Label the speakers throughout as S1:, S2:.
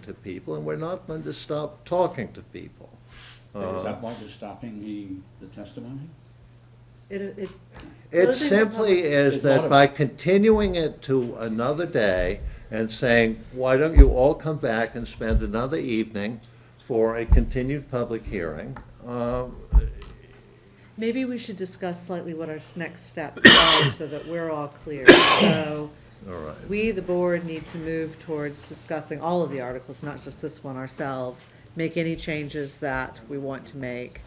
S1: to people, and we're not going to stop talking to people.
S2: Is
S1: Uh,
S2: that why we're stopping the, the testimony?
S3: It, it,
S1: It
S3: Closing the
S1: simply
S3: public-
S1: is
S2: It's not
S1: that
S2: a-
S1: by continuing it to another day and saying, why don't you all come back and spend another evening for a continued public hearing? um,
S3: maybe we should discuss slightly what our s- next steps are so that we're all clear. So
S1: All right.
S3: we, the board, need to move towards discussing all of the articles, not just this one ourselves. Make any changes that we want to make.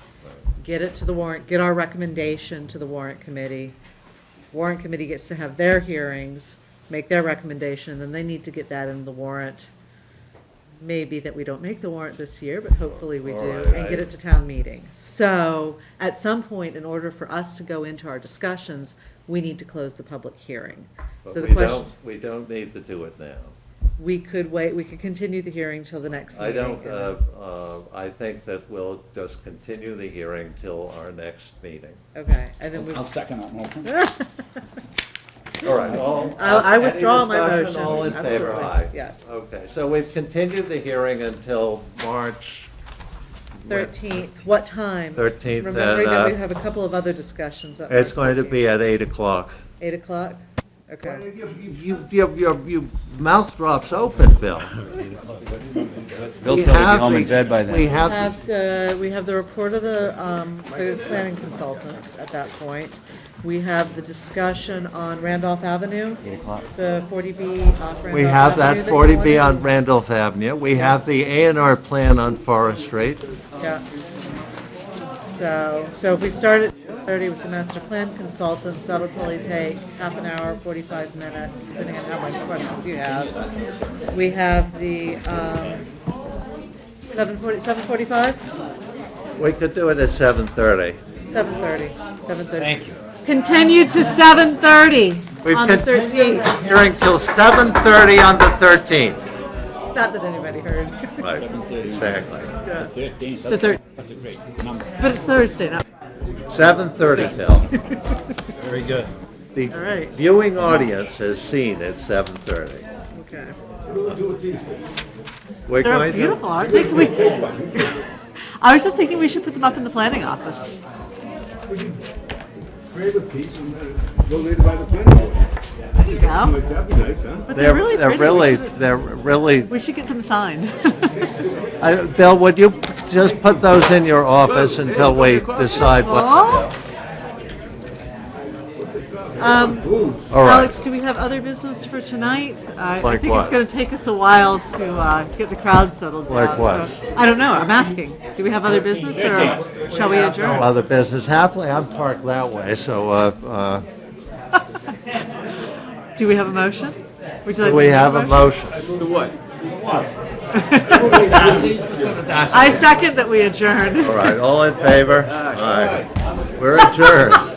S3: Get it to the warrant, get our recommendation to the warrant committee. Warrant committee gets to have their hearings, make their recommendation, and then they need to get that in the warrant. Maybe that we don't make the warrant this year, but hopefully we
S1: All
S3: do,
S1: right,
S3: and
S1: I-
S3: get it to town meeting. So, at some point, in order for us to go into our discussions, we need to close the public hearing.
S1: But
S3: So the
S1: we
S3: question.
S1: don't, we don't need to do it now.
S3: We could wait, we could continue the hearing till the next
S1: I
S3: meeting.
S1: don't,
S3: and-
S1: uh, uh, I think that we'll just continue the hearing till our next meeting.
S3: Okay, and then we,
S2: I'll second that motion.
S1: All right, all.
S3: I- I
S1: any
S3: withdraw my
S1: discussion?
S3: motion.
S1: All in favor,
S3: Absolutely.
S1: aye.
S3: Yes.
S1: Okay, so we've continued the hearing until March. when-
S3: thirteenth, what time?
S1: 13th,
S3: Remembering that we
S1: and, uh,
S3: have a couple of other discussions up.
S1: It's
S3: next
S1: going to
S3: week.
S1: be at eight o'clock.
S3: Eight o'clock? Okay.
S1: You, your, your, your mouth drops open, Bill.
S4: Bill's probably
S1: We have
S4: home
S1: the-
S4: in bed by
S1: We
S4: then.
S1: have,
S3: Have the, we have the report of the, um, the planning consultants at that point. We have the discussion on Randolph Avenue. Eight
S4: o'clock.
S3: The forty B off Randolph Avenue.
S1: we have that
S3: you
S1: forty B on
S3: wanted.
S1: Randolph Avenue. We have the A and R plan on Forest Street.
S3: Yeah. So, so if we start at thirty with the master plan consultants, that'll probably take half an hour, forty-five minutes, depending on how much questions you have. We have the, um, seven forty, seven forty-five,
S1: We could do it at seven thirty.
S3: seven thirty, seven thirty.
S1: Thank you.
S3: Continued to seven thirty
S1: We've
S3: on the
S1: continued
S3: thirteenth.
S1: the hearing till seven thirty on the thirteenth.
S3: Not that anybody heard.
S1: Right, exactly.
S2: Thirteen,
S3: The thir-
S2: that's, that's a great number.
S3: But it's Thursday now.
S1: Seven thirty till.
S5: Very good.
S3: All
S1: The
S3: right.
S1: viewing audience has seen at seven thirty.
S3: Okay.
S1: We're
S3: They're
S1: going to.
S3: beautiful, aren't they? Can we- I was just thinking we should put them up in the planning office.
S6: Create a piece and then go later by the planning board.
S3: There you go.
S6: Like, that'd be nice, huh?
S3: But they're really
S1: They're
S3: pretty. We
S1: really,
S3: should-
S1: they're really,
S3: We should get them signed.
S1: I- Bill, would you just put those in your office until we decide what?
S3: Well,
S1: All right,
S3: Alex, do we have other business for tonight? Uh, I- I
S1: Like
S3: think it's
S1: what?
S3: going to take us a while to uh, get the crowd settled down.
S1: Like what?
S3: so- I don't know, I'm asking. Do we have other business or shall we adjourn?
S1: other business. Happily, I'm parked that way, so uh,
S3: Do we have a motion? Would you
S1: uh,
S3: like?
S1: we
S3: to make
S1: have a motion.
S3: I second that we adjourn.
S1: All right, all in favor? All right, we're adjourned.